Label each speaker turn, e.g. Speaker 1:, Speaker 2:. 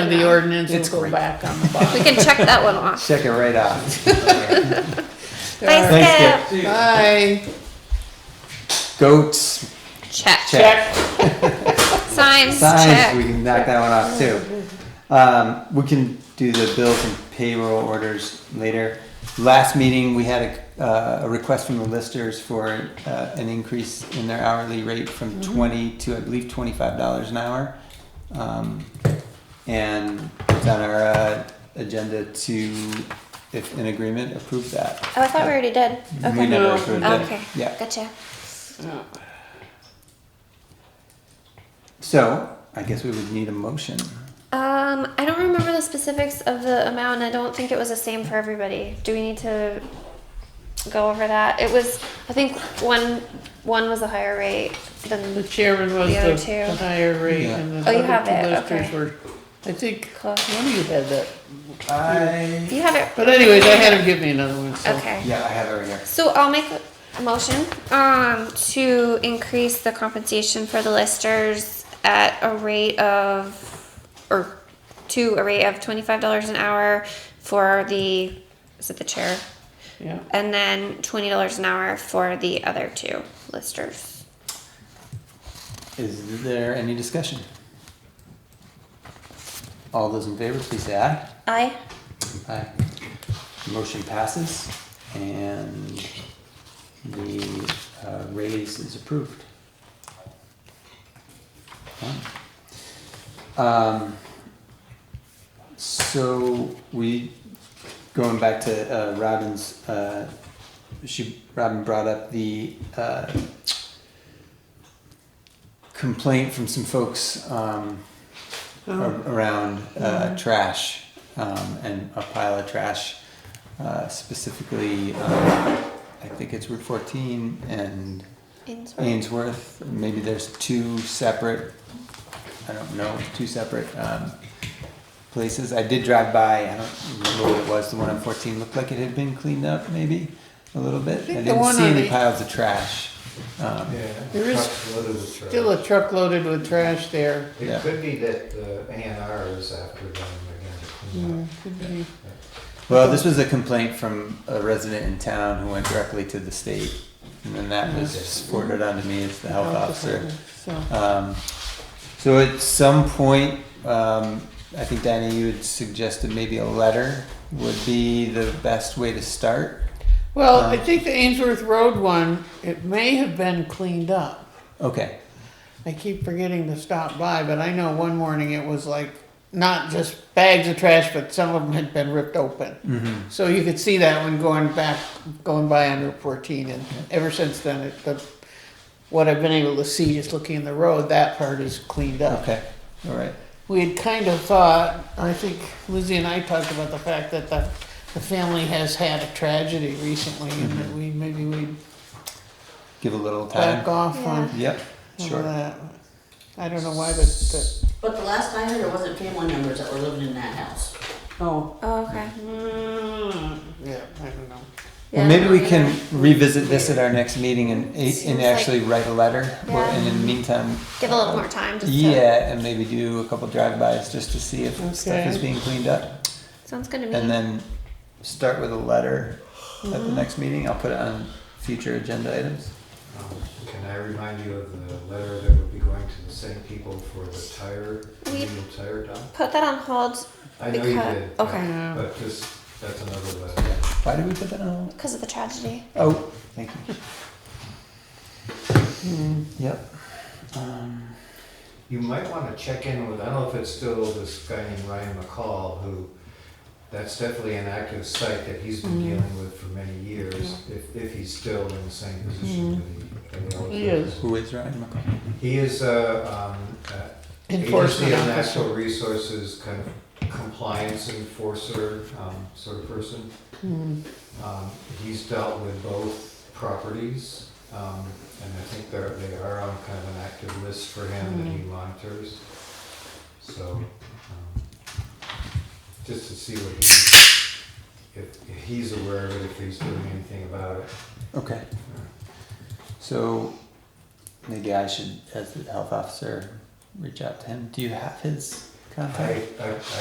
Speaker 1: of the ordinance
Speaker 2: It's
Speaker 1: and go
Speaker 2: great.
Speaker 1: back on the bottom.
Speaker 3: We can check that one off.
Speaker 4: Check it right off. Thanks,
Speaker 3: Thanks, Skip.
Speaker 1: Bye,
Speaker 4: Goats,
Speaker 3: Check.
Speaker 4: Check.
Speaker 3: Signs,
Speaker 4: signs, we
Speaker 3: check.
Speaker 4: can knock that one off too. Um, we can do the bills and payroll orders later. Last meeting, we had a, uh, a request from the listers for, uh, an increase in their hourly rate from
Speaker 3: Mm-hmm.
Speaker 4: twenty to, I believe, twenty-five dollars an hour. Um, and it's on our, uh, agenda to, if in agreement, approve that.
Speaker 3: Oh, I thought we already did. Okay.
Speaker 4: We never approved it.
Speaker 3: Okay.
Speaker 4: Yeah.
Speaker 3: Gotcha.
Speaker 4: So, I guess we would need a motion.
Speaker 3: Um, I don't remember the specifics of the amount. and I don't think it was the same for everybody. Do we need to go over that? It was. I think one one was a higher rate
Speaker 1: the
Speaker 3: than
Speaker 1: chairman was
Speaker 3: The other
Speaker 1: the
Speaker 3: two.
Speaker 1: the higher rate
Speaker 4: Yeah.
Speaker 1: and
Speaker 3: Oh,
Speaker 1: the
Speaker 3: you have it,
Speaker 1: other two listers
Speaker 3: okay.
Speaker 1: were, I think, one
Speaker 3: Close.
Speaker 1: of you had that.
Speaker 4: I.
Speaker 3: you had it.
Speaker 1: But anyways, I had him give me another one, so.
Speaker 3: Okay.
Speaker 4: Yeah, I have it right here.
Speaker 3: So I'll make a motion um, to increase the compensation for the listers at a rate of, or to a rate of twenty-five dollars an hour for the, is it the chair?
Speaker 1: Yeah,
Speaker 3: And then twenty dollars an hour for the other two listers.
Speaker 4: Is there any discussion? All those in favor, please say aye.
Speaker 3: Aye.
Speaker 4: Aye. Motion passes and the uh, raise is approved. Um, So we, going back to uh, Robin's, uh, she, Robin brought up the uh, complaint from some folks um,
Speaker 1: Oh.
Speaker 4: a- around
Speaker 1: Mm-hmm.
Speaker 4: uh, trash um, and a pile of trash. Uh, specifically, um, I think it's Route 14 and Ainsworth. Maybe there's two separate, I don't know, two separate um, places. I did drive by, I don't remember what it was. The one on 14 looked like it had been cleaned up, maybe a little bit. I,
Speaker 1: think the
Speaker 4: didn't
Speaker 1: one
Speaker 4: see
Speaker 1: on
Speaker 4: any
Speaker 1: the-
Speaker 4: piles of trash. Um,
Speaker 5: Yeah.
Speaker 1: There is
Speaker 5: truck's loaded with trash.
Speaker 1: still a truck loaded with trash there.
Speaker 4: Yeah.
Speaker 5: It could be that the A and R is after them again to clean
Speaker 1: Yeah,
Speaker 5: up.
Speaker 1: could be.
Speaker 4: Well, this was a complaint from a resident in town who went directly to the state, and then that was forwarded on to me as the health officer.
Speaker 1: So,
Speaker 4: Um, so at some point, um, I think Diana, you had suggested maybe a letter would be the best way to start.
Speaker 1: well, I
Speaker 4: Um,
Speaker 1: think the Ainsworth Road one, it may have been cleaned up.
Speaker 4: Okay,
Speaker 1: I keep forgetting to stop by, but I know one morning it was like not just bags of trash, but some of them had been ripped open.
Speaker 4: Mm-hmm.
Speaker 1: So you could see that when going back, going by on Route 14, and ever since then, it, the, what I've been able to see just looking in the road, that part is cleaned up.
Speaker 4: okay, all right.
Speaker 1: We had kind of thought, I think Lizzie and I talked about the fact that the, the family has had a tragedy recently, and that we maybe we'd
Speaker 4: Give a little
Speaker 1: back
Speaker 4: time.
Speaker 1: off on
Speaker 4: Yep,
Speaker 1: some of
Speaker 4: sure.
Speaker 1: that. I don't know why, but, but
Speaker 6: But the last I heard, it wasn't family members that were living in that house.
Speaker 1: oh.
Speaker 3: Oh, okay.
Speaker 1: Yeah, I don't know.
Speaker 4: Well, maybe we can revisit this at our next meeting and,
Speaker 3: Seems
Speaker 4: and
Speaker 3: like-
Speaker 4: actually write a letter, or- and in the meantime.
Speaker 3: Give a little more time. Just to-
Speaker 4: Yeah, and maybe do a couple drive-bys just to see if stuff is
Speaker 1: Okay.
Speaker 4: being cleaned up,
Speaker 3: Sounds good to me.
Speaker 4: and then start with a letter at the next meeting. I'll put it on future agenda items.
Speaker 5: Um, Can I remind you of the letter that would be going to the same people for the tire, the
Speaker 3: We-
Speaker 5: new tire dump?
Speaker 3: Put that on hold
Speaker 5: I know you
Speaker 3: because
Speaker 5: did. but-
Speaker 3: okay
Speaker 5: But just, that's another letter.
Speaker 4: Why did we put that on?
Speaker 3: because of the tragedy.
Speaker 4: Oh, thank you. Yep. Um,
Speaker 5: You might want to check in with, I don't know if it's still this guy named Ryan McCall, who, that's definitely an active site that he's
Speaker 1: Mm.
Speaker 5: been dealing with for many years, if, if he's still in the same
Speaker 1: Mm-hmm.
Speaker 5: position that he. that was
Speaker 1: He
Speaker 5: in.
Speaker 1: is.
Speaker 4: Who is Ryan McCall?
Speaker 5: He is a, um, a
Speaker 1: Enforcement
Speaker 5: agency of
Speaker 1: officer.
Speaker 5: natural resources, kind of compliance enforcer, um, sort of person.
Speaker 1: Mm.
Speaker 5: Um, he's dealt with both properties, um, and I think they're, they are on kind of an active list for him that he monitors. So, um, just to see what he, if if he's aware of it, if he's doing anything about it.
Speaker 4: Okay. So maybe I should, as the health officer, reach out to him. Do you have his contact?
Speaker 5: I, I, I